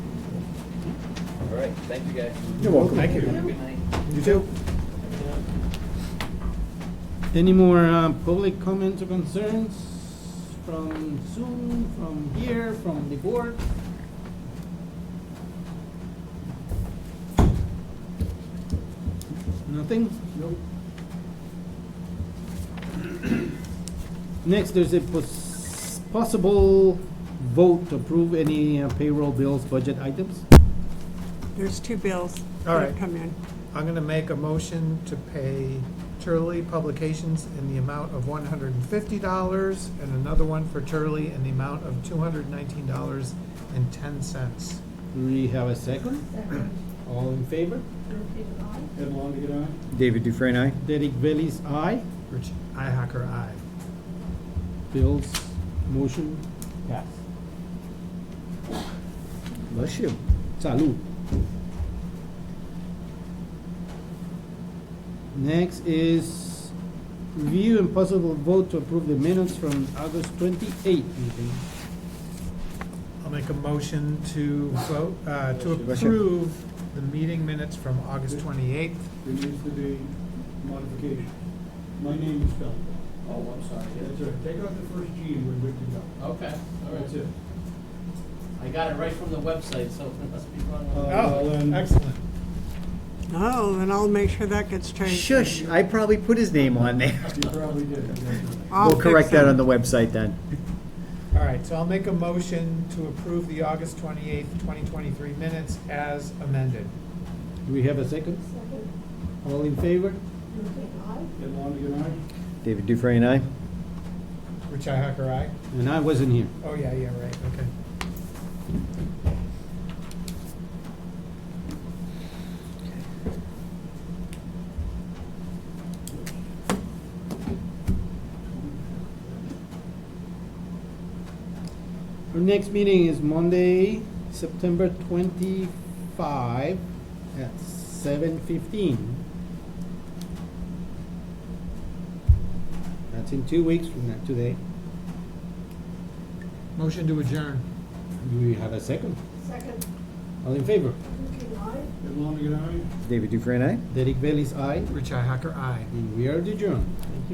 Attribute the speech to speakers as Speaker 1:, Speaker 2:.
Speaker 1: All right, thank you guys.
Speaker 2: You're welcome.
Speaker 3: Thank you.
Speaker 2: You too.
Speaker 3: Any more uh, public comments or concerns from Zoom, from here, from the board? Nothing? Nope. Next, there's a pos- possible vote to approve any uh, payroll bills, budget items.
Speaker 4: There's two bills
Speaker 2: All
Speaker 4: that
Speaker 2: right.
Speaker 4: have come in.
Speaker 2: I'm gonna make a motion to pay Turley Publications in the amount of one hundred and fifty dollars and another one for Turley in the amount of two hundred and nineteen dollars and ten cents.
Speaker 3: Do we have a second?
Speaker 5: Second,
Speaker 3: All in favor?
Speaker 5: Drew Peter, aye.
Speaker 3: Ed Longigan,
Speaker 6: David Dufresne, aye.
Speaker 3: Derek Bailey's aye.
Speaker 2: Rich Ihacker, aye.
Speaker 3: Bill's motion pass.
Speaker 6: Bless you.
Speaker 3: Salud. Next is review and possible vote to approve the minutes from August twenty-eighth meeting.
Speaker 2: I'll make a motion to vote, uh, to
Speaker 6: Bless you.
Speaker 2: approve the meeting minutes from August twenty-eighth.
Speaker 7: There needs to be modification. My name is spelled wrong.
Speaker 1: Oh, I'm sorry.
Speaker 7: That's all right. Take out the first G and we're good to go.
Speaker 1: Okay, all
Speaker 7: That's it.
Speaker 1: right. I got it right from the website, so it must be wrong.
Speaker 7: Uh, well, then-
Speaker 2: Oh, Excellent.
Speaker 4: Oh, then I'll make sure that gets changed.
Speaker 6: Shush, I probably put his name on there.
Speaker 7: You probably did. That's right.
Speaker 4: I'll
Speaker 6: We'll correct
Speaker 4: fix
Speaker 6: that
Speaker 4: it.
Speaker 6: on the website then.
Speaker 2: All right, so I'll make a motion to approve the August twenty-eighth, twenty twenty-three minutes as amended.
Speaker 3: Do we have a second?
Speaker 5: Second,
Speaker 3: All in favor?
Speaker 5: Drew Peter, aye.
Speaker 7: Get along to get on.
Speaker 6: David Dufresne, aye.
Speaker 2: Rich Ihacker, aye.
Speaker 3: And I wasn't here.
Speaker 2: Oh, yeah, yeah, right, okay.
Speaker 3: Our next meeting is Monday, September twenty-five at seven fifteen. That's in two weeks from now, today.
Speaker 2: Motion to adjourn.
Speaker 3: Do we have a second?
Speaker 5: Second,
Speaker 3: All in favor?
Speaker 5: Drew Peter, aye.
Speaker 7: Get along to get on.
Speaker 6: David Dufresne, aye.
Speaker 3: Derek Bailey's aye,
Speaker 2: Richi Hacker, aye.
Speaker 3: and we are adjourned.
Speaker 1: Thank